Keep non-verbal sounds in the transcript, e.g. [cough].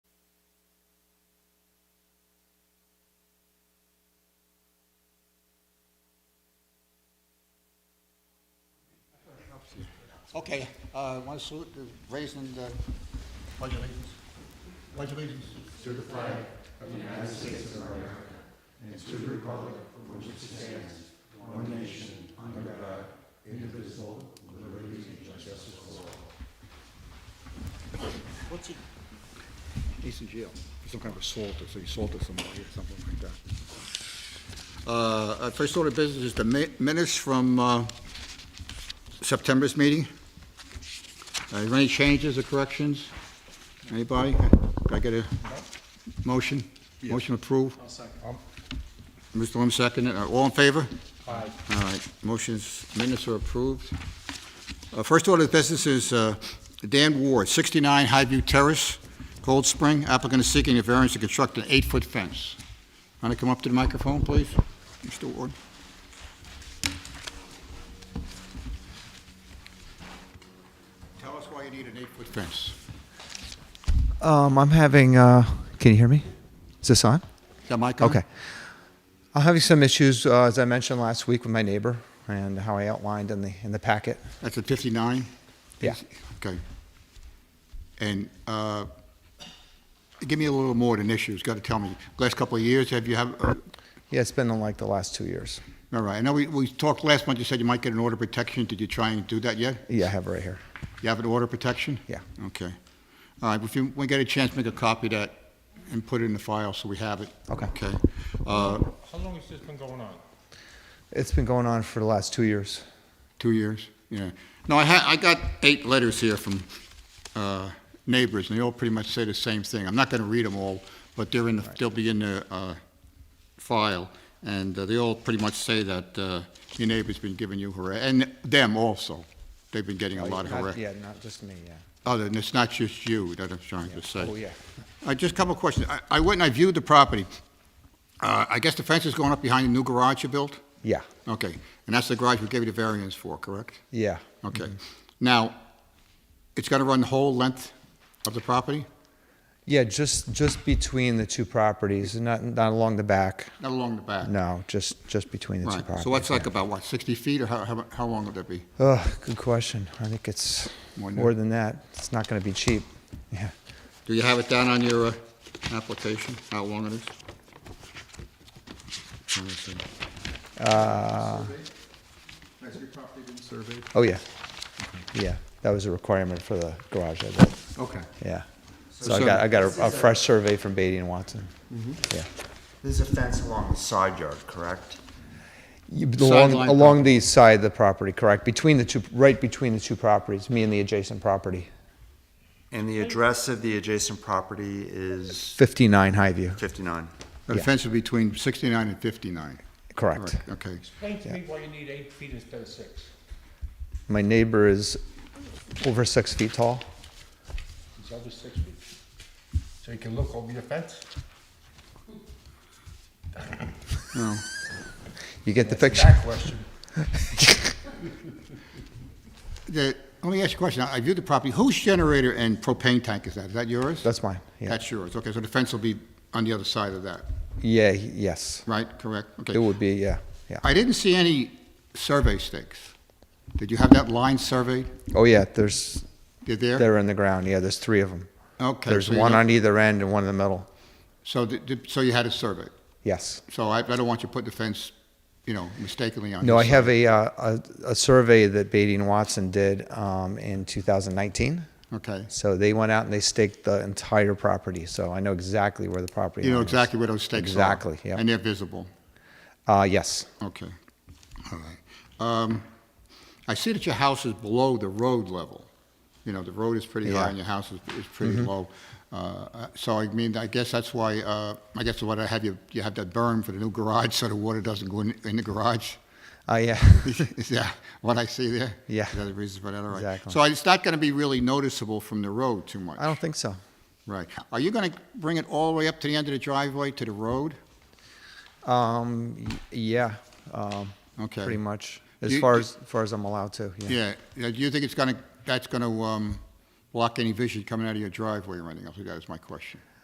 Okay, uh, want to salute the raising the pledge allegiance. Pledge allegiance. What's he? He's in jail. He's some kind of assaulter, so he assaulted somebody or something like that. Uh, uh, First order of business is the mi- minutes from uh, September's meeting. Uh, Is there any changes or corrections? Anybody? Can I get a motion? Motion approved? I'll second. Mr. Lim seconded. Uh, All in favor? Aye. All right, motions, minutes are approved. Uh, First order of business is uh, Dan Ward, 69 Highview Terrace, Cold Spring. Applicant is seeking a variance to construct an eight-foot fence. Want to come up to the microphone, please, Mr. Ward? Tell us why you need an eight-foot fence. Um, I'm having. Uh, can you hear me? Is this on? Is that mic on? Okay. I'm having some issues, uh, as I mentioned last week, with my neighbor and how I outlined in the in the packet. That's at 59? Yeah. Okay. And uh, give me a little more than issues, got to tell me. Last couple of years, have you have, uh, Yeah, it's been in like the last two years. all right, I know we we talked last month, you said you might get an order of protection. Did you try and do that yet? Yeah, I have it right here. You have an order of protection? Yeah. Okay. All right, if you, when you get a chance, make a copy of that and put it in the file so we have it. Okay. Okay. Uh, How long has this been going on? It's been going on for the last two years. Two years, yeah. No, I had, I got eight letters here from uh, neighbors, and they all pretty much say the same thing. I'm not going to read them all, but they're in, the- they'll be in the uh, file, and uh, they all pretty much say that uh, your neighbor's been giving you harass, and them also. They've been getting a lot of Not- harass. Oh, Yeah, not just me. Yeah. Other, and it's not just you that I'm trying to say. Oh yeah. Uh, Just a couple of questions. I- I went and I viewed the property. Uh, I guess the fence is going up behind the new garage you built? Yeah. Okay, and that's the garage we gave you the variance for, correct? Yeah. Okay. Now, it's going to run the whole length of the property, Yeah. Just just between the two properties, not not along the back. not along the back? No, just just between the two Right, properties. so that's like yeah. about, what, 60 feet, or how- how how long would that be? Oh, good question. I think it's More than more that. than that. It's not going to be cheap. Yeah. Do you have it down on your uh, application, how long it is? Let me see. Uh. Oh, yeah. Yeah, that was a requirement for the garage, I believe. Okay. Yeah. So I got, I got a, Mm-hmm. a fresh survey from Beatty and Watson. Yeah. There's a fence along the side yard, correct? You- Along, Sideline along the side of the property, correct? Between the two, right between the two properties, me and the adjacent property. And the address of the adjacent property is 59 Highview, 59. The Yeah. fence is between 69 and 59? correct. Correct, Okay. Explain to me why you need eight feet instead of six. My neighbor is over six feet tall. It's over six feet. So you can look over your fence? No. You get the picture? That question. The- Let me ask you a question. I I viewed the property. Whose generator and propane tank is that? Is that yours? That's mine, yeah. That's yours. Okay, so the fence will be on the other side of that, Yeah, he- yes. right? Correct? Okay. It would be, yeah, yeah. I didn't see any survey stakes. Did you have that line surveyed? Oh, yeah, there's, Did there? they're in the ground, yeah, there's three of them. Okay, There's so you one don't- on either end and one in the middle, So, the- the- so you had it surveyed. yes. So I, I don't want you putting the fence, you know, mistakenly on. No, I this side. have a, uh, a, a survey that Beatty and Watson did um, in 2019. Okay. So they went out and they staked the entire property. So I know exactly where the property. You know line is. exactly where those stakes are. Exactly, yeah. And they're visible. Uh, yes. Okay. All right. Um, I see that your house is below the road level. You know, the road is pretty high Yeah. Mm-hmm. and your house is, is pretty low. Uh, uh, so I mean, I guess that's why, uh, I guess what I have you, you have that berm for the new garage so the water doesn't go in, in the garage. [laughs] Uh, yeah. [laughs] Is that what I see there? Yeah. Is that the reason for that? All right. Exactly. So it's not going to be really noticeable from the road too much? I don't think so. Right. Are you going to bring it all the way up to the end of the driveway to the road? Um, y- yeah. Um, Okay. Pretty much as You- far you- as, far as I'm allowed to. Yeah. Yeah. Yeah, Do you um, think it's going to, that's going to block any vision coming out of your driveway or anything else? That is my question.